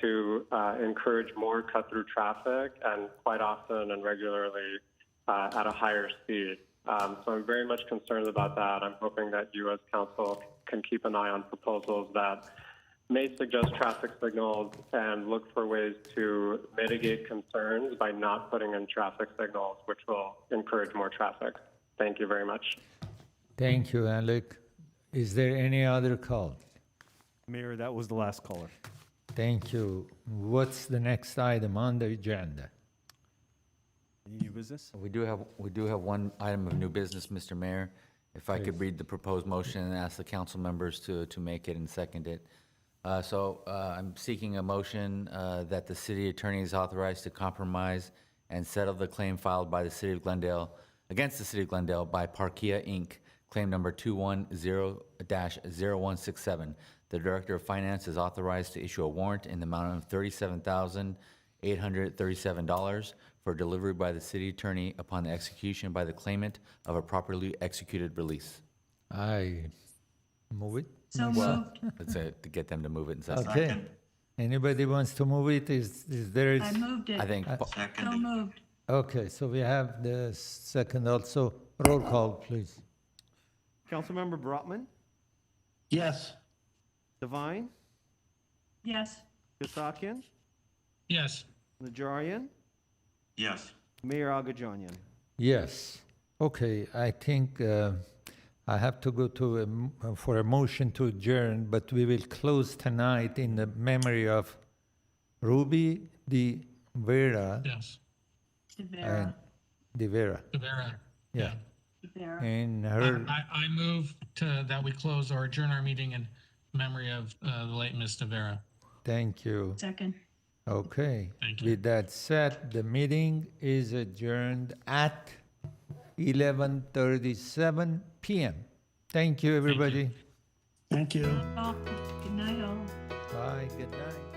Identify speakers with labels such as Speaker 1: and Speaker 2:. Speaker 1: to uh, encourage more cut through traffic and quite often and regularly uh, at a higher speed. Um, so I'm very much concerned about that. I'm hoping that you, as council, can keep an eye on proposals that may suggest traffic signals and look for ways to mitigate concerns by not putting in traffic signals, which will encourage more traffic. Thank you very much.
Speaker 2: Thank you, Alec. Is there any other call?
Speaker 3: Mayor, that was the last caller.
Speaker 2: Thank you. What's the next item on the agenda?
Speaker 3: Any new business?
Speaker 4: We do have, we do have one item of new business, Mr. Mayor. If I could read the proposed motion and ask the council members to, to make it and second it. Uh, So uh, I'm seeking a motion uh, that the city attorney is authorized to compromise and settle the claim filed by the city of Glendale, against the city of Glendale by Parkia Inc., claim number 210-0167. The Director of Finance is authorized to issue a warrant in the amount of $37,837 for delivery by the city attorney upon the execution by the claimant of a properly executed release.
Speaker 2: I move it.
Speaker 5: So moved.
Speaker 4: That's it, to get them to move it and such.
Speaker 2: Okay. Anybody wants to move it? Is, is there is?
Speaker 5: I moved it.
Speaker 4: I think, Pa-
Speaker 5: So moved.
Speaker 2: Okay, so we have the second also. Roll call, please.
Speaker 3: Councilmember Brotman,
Speaker 6: Yes.
Speaker 3: Devine,
Speaker 5: Yes.
Speaker 3: Kasakian,
Speaker 6: Yes.
Speaker 3: Najarian,
Speaker 6: Yes.
Speaker 3: Mayor Agajanian.
Speaker 2: Yes. Okay, I think uh, I have to go to, a m- uh, for a motion to adjourn, but we will close tonight in the memory of Ruby Di Vera
Speaker 6: Yes.
Speaker 2: and
Speaker 5: Devera.
Speaker 2: Di Vera.
Speaker 6: Rivera.
Speaker 2: Yeah.
Speaker 5: Devera.
Speaker 2: And
Speaker 6: I,
Speaker 2: her,
Speaker 6: I I move to, that we close or adjourn our meeting in memory of uh, the late Miss Rivera.
Speaker 2: thank you.
Speaker 5: Second.
Speaker 2: Okay.
Speaker 6: Thank you.
Speaker 2: With that said, the meeting is adjourned at 11:37 PM. Thank you, everybody.
Speaker 6: Thank you.
Speaker 5: Oh, good night all.
Speaker 2: Bye, good night.